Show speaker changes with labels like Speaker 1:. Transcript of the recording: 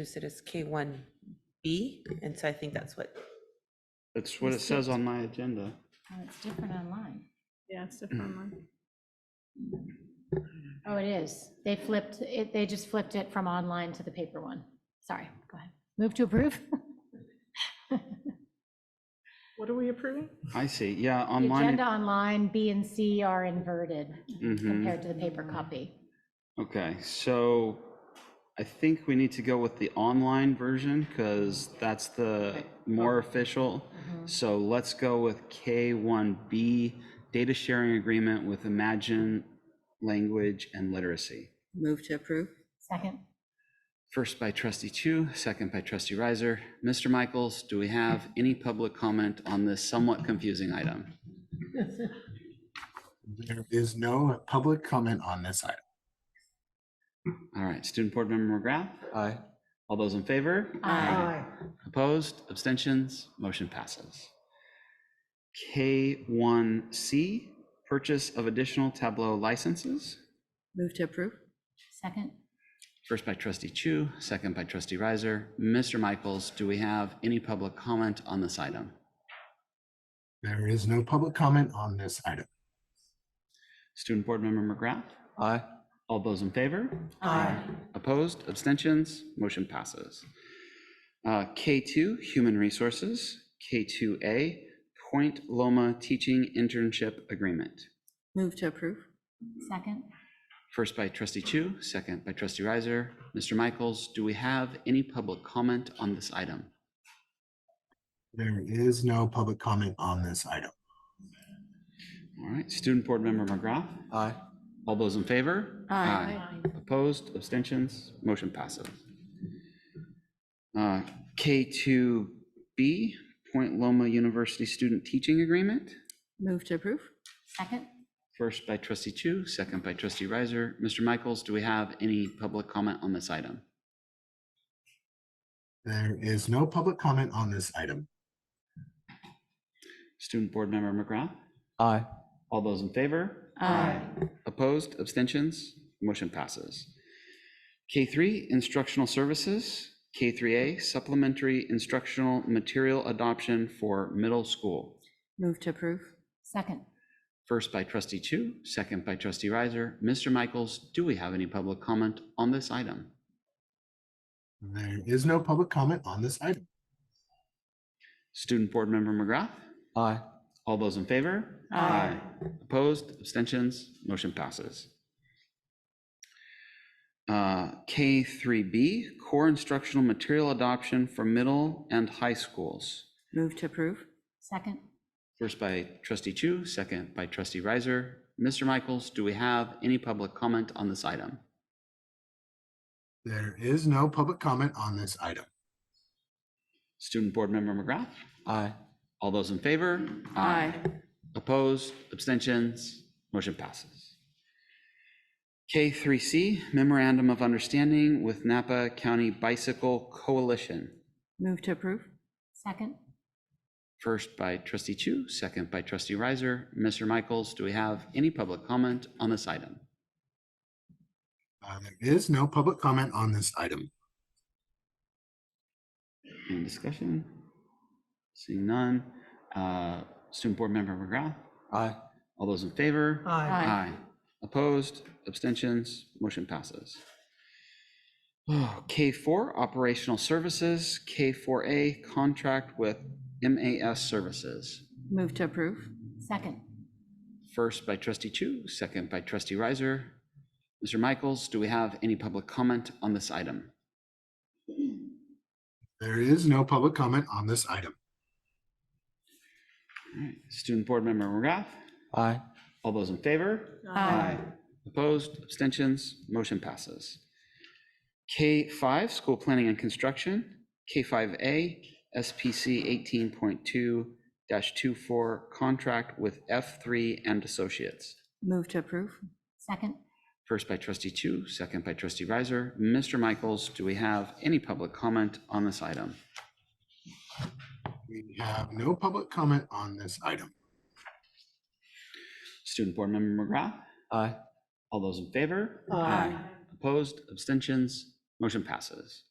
Speaker 1: it as K1B, and so I think that's what,
Speaker 2: That's what it says on my agenda.
Speaker 3: Oh, it's different online.
Speaker 4: Yeah, it's different one.
Speaker 3: Oh, it is. They flipped, it, they just flipped it from online to the paper one. Sorry, go ahead. Move to approve?
Speaker 4: What are we approving?
Speaker 2: I see, yeah,
Speaker 3: The agenda
Speaker 2: online,
Speaker 3: online, B and C are inverted
Speaker 2: mhm,
Speaker 3: compared to the paper copy.
Speaker 2: okay, so I think we need to go with the online version, because that's the more official. So let's go with K1B, data sharing agreement with Imagine Language and Literacy.
Speaker 5: Move to approve?
Speaker 3: Second,
Speaker 2: First by trustee Chu, second by trustee Riser. Mr. Michaels, do we have any public comment on this somewhat confusing item?
Speaker 6: There is no public comment on this item.
Speaker 2: All right, student board member McGrath,
Speaker 6: Aye.
Speaker 2: all those in favor?
Speaker 3: Aye.
Speaker 2: Opposed, abstentions, motion passes. K1C, purchase of additional Tableau licenses.
Speaker 5: Move to approve?
Speaker 3: second,
Speaker 2: First by trustee Chu, second by trustee Riser. Mr. Michaels, do we have any public comment on this item?
Speaker 6: There is no public comment on this item.
Speaker 2: Student board member McGrath? Aye. All those in favor?
Speaker 3: Aye.
Speaker 2: Opposed, abstentions, motion passes. Uh, K2, human resources. K2A, Point Loma Teaching Internship Agreement.
Speaker 5: Move to approve?
Speaker 3: second.
Speaker 2: First by trustee Chu, second by trustee Riser. Mr. Michaels, do we have any public comment on this item?
Speaker 6: There is no public comment on this item.
Speaker 2: All right, student board member McGrath.
Speaker 6: Aye.
Speaker 2: All those in favor?
Speaker 5: Aye.
Speaker 2: Opposed, abstentions, motion passes. Uh, K2B, Point Loma University Student Teaching Agreement.
Speaker 5: Move to approve?
Speaker 3: Second,
Speaker 2: First by trustee Chu, second by trustee Riser. Mr. Michaels, do we have any public comment on this item?
Speaker 6: There is no public comment on this item.
Speaker 2: Student board member McGrath.
Speaker 6: Aye.
Speaker 2: All those in favor?
Speaker 5: Aye.
Speaker 2: Opposed, abstentions, motion passes. K3, instructional services. K3A, supplementary instructional material adoption for middle school.
Speaker 5: Move to approve?
Speaker 3: second.
Speaker 2: First by trustee Chu, second by trustee Riser. Mr. Michaels, do we have any public comment on this item?
Speaker 6: There is no public comment on this item.
Speaker 2: Student board member McGrath? Aye. All those in favor?
Speaker 5: Aye.
Speaker 2: Opposed, abstentions, motion passes. Uh, K3B, core instructional material adoption for middle and high schools.
Speaker 5: Move to approve?
Speaker 3: Second,
Speaker 2: First by trustee Chu, second by trustee Riser. Mr. Michaels, do we have any public comment on this item?
Speaker 6: There is no public comment on this item.
Speaker 2: Student board member McGrath? Aye. All those in favor? Opposed, abstentions, motion passes. K3C, Memorandum of Understanding with Napa County Bicycle Coalition.
Speaker 5: Move to approve?
Speaker 3: second,
Speaker 2: First by trustee Chu, second by trustee Riser. Mr. Michaels, do we have any public comment on this item?
Speaker 6: Uh, There is no public comment on this item.
Speaker 2: Any discussion? Seeing none. Uh, Student Board Member McGrath? Aye. All those in favor?
Speaker 3: Aye.
Speaker 2: Opposed, abstentions, motion passes. Oh, K4, operational services, K4A, contract with MAS services.
Speaker 5: Move to approve?
Speaker 3: second.
Speaker 2: First by trustee Chu, second by trustee Riser. Mr. Michaels, do we have any public comment on this item?
Speaker 6: There is no public comment on this item.
Speaker 2: All right, Student Board Member McGrath?
Speaker 6: Aye.
Speaker 2: All those in favor?
Speaker 4: Uh,
Speaker 5: Aye.
Speaker 2: Opposed, abstentions, motion passes. K5, School Planning and Construction, K5A, SPC 18.2-24, Contract with F3 and Associates.
Speaker 5: Move to approve?
Speaker 3: Second,
Speaker 2: First by trustee Chu, second by trustee Riser. Mr. Michaels, do we have any public comment on this item?
Speaker 6: We have no public comment on this item.
Speaker 2: Student Board Member McGrath?
Speaker 6: Aye.
Speaker 2: All those in favor? Opposed, abstentions, motion passes.